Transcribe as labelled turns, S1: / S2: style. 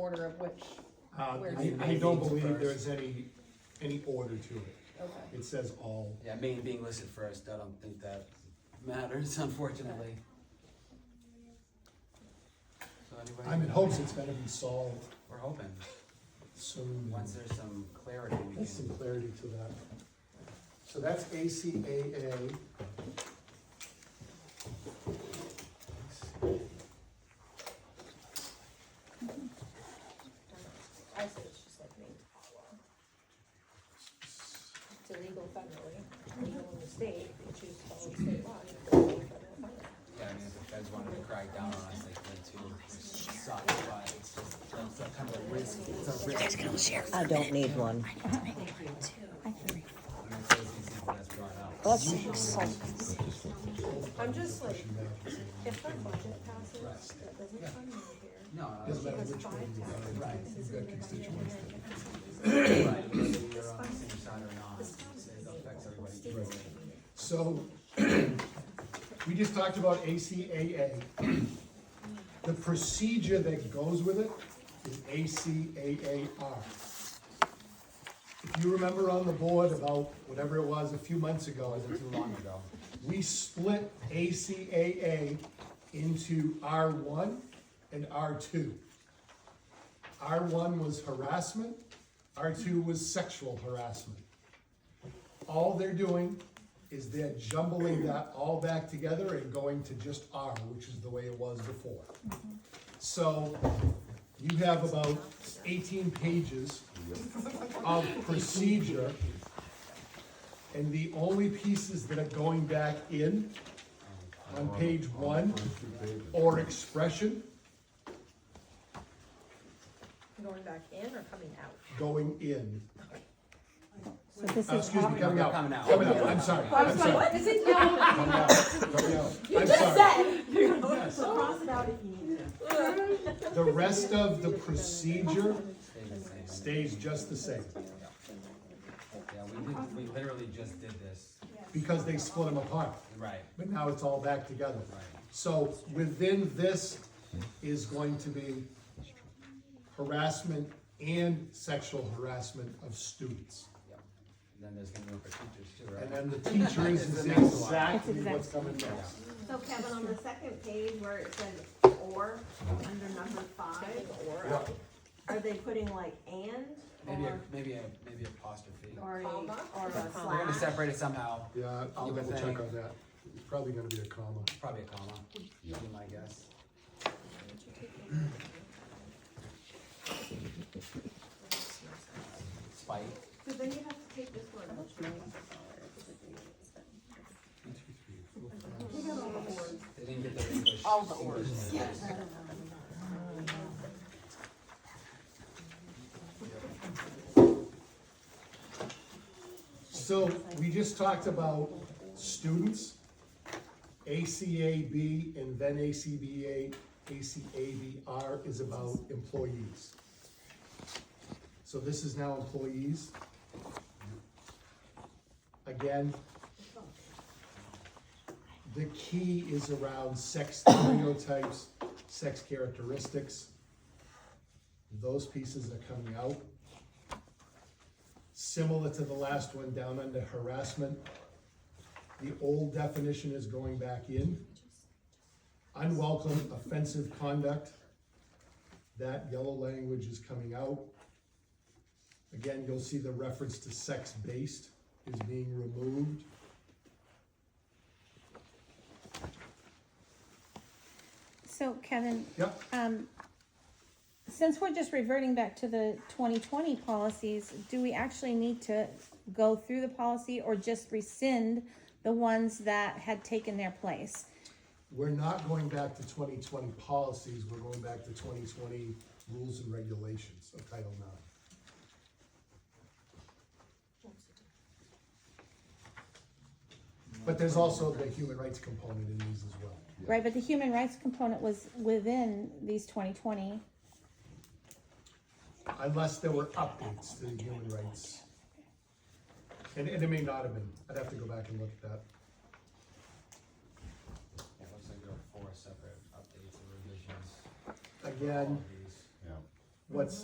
S1: order of which,
S2: Uh,
S1: Where
S2: I,
S1: it's
S2: I don't
S3: made.
S2: believe there's any, any order to it.
S1: okay.
S2: It says all,
S3: Yeah, Maine being listed first, I don't think that matters, unfortunately. So anybody?
S2: I'm in hopes it's gonna be solved
S3: We're hoping,
S2: soon.
S3: once there's some clarity, we
S2: There's some
S3: can,
S2: clarity to that. So that's ACAA.
S1: I see what she said, maybe. It's illegal federally, legal in the state, which is following state law. you're illegal federally.
S3: yeah, I mean, if the feds wanted to crack down on us, they could too, which sucks, but it's just, it's a kind of a risk, it's a risk.
S4: I don't need one.
S3: And it's always these things that's brought up.
S1: I'm just like, if the budget passes, that doesn't come in here.
S3: No, no,
S2: Doesn't matter
S1: Because
S2: which
S1: five
S2: one you
S1: taxes
S2: got,
S3: Right.
S2: you've got constituents.
S3: it's right, whether you're on the same side or not, it's- it affects everybody equally.
S2: So, we just talked about ACAA. The procedure that goes with it is ACAAR. If you remember on the board about whatever it was a few months ago,
S3: Wasn't too long ago.
S2: we split ACAA into R1 and R2. R1 was harassment, R2 was sexual harassment. All they're doing is they're jumbling that all back together and going to just R, which is the way it was before. So you have about 18 pages of procedure and the only pieces that are going back in on page one or expression
S1: Going back in or coming out?
S2: going in.
S4: So this
S2: Uh,
S4: is
S2: Excuse me, coming out.
S3: Coming out.
S2: Coming out, I'm sorry.
S1: I
S2: I'm
S1: was like,
S2: sorry.
S1: what is it now?
S2: Coming out, coming out. I'm sorry.
S5: So cross it out if you need to.
S2: The rest of the procedure
S3: Stay the same.
S2: stays just the same
S3: Yeah, we did, we literally just did this,
S2: because they split them apart,
S3: right,
S2: but now it's all back together.
S3: right.
S2: So within this is going to be harassment and sexual harassment of students.
S3: Yep. And then there's gonna be room for teachers too,
S2: And
S3: right?
S2: then the teachers
S3: It's
S2: is
S3: the next one.
S2: exactly what's coming next.
S5: So Kevin, on the second page where it says or, under number five,
S2: Yeah.
S5: are they putting like and?
S3: Maybe, a
S5: Or,
S3: maybe a, maybe apostrophe.
S5: or a,
S1: Comma?
S5: or a
S3: We're gonna
S5: slash?
S3: separate it somehow,
S2: Yeah, I'll
S3: You would
S2: double check
S3: think.
S2: on that. It's probably gonna be a comma.
S3: probably a comma, would be my guess. Spike,
S5: So then you have to take this one.
S3: they didn't get the English.
S4: All the words.
S3: English letters.
S2: So we just talked about students, ACAB and then ACBA, ACABR is about employees. So this is now employees. Again, the key is around sex stereotypes, sex characteristics. Those pieces are coming out similar to the last one down under harassment. The old definition is going back in. Unwelcome offensive conduct, that yellow language is coming out. Again, you'll see the reference to sex-based is being removed.
S6: So Kevin,
S2: Yep,
S6: um, since we're just reverting back to the twenty twenty policies, do we actually need to go through the policy or just rescind the ones that had taken their place?
S2: we're not going back to twenty twenty policies, we're going back to twenty twenty rules and regulations of Title IX. But there's also the human rights component in these as well.
S6: Right, but the human rights component was within these twenty twenty.
S2: unless there were updates to the human rights. And, and it may not have been, I'd have to go back and look at that.
S3: Yeah, looks like there are four separate updates and revisions.
S2: Again,
S3: All these.
S2: what's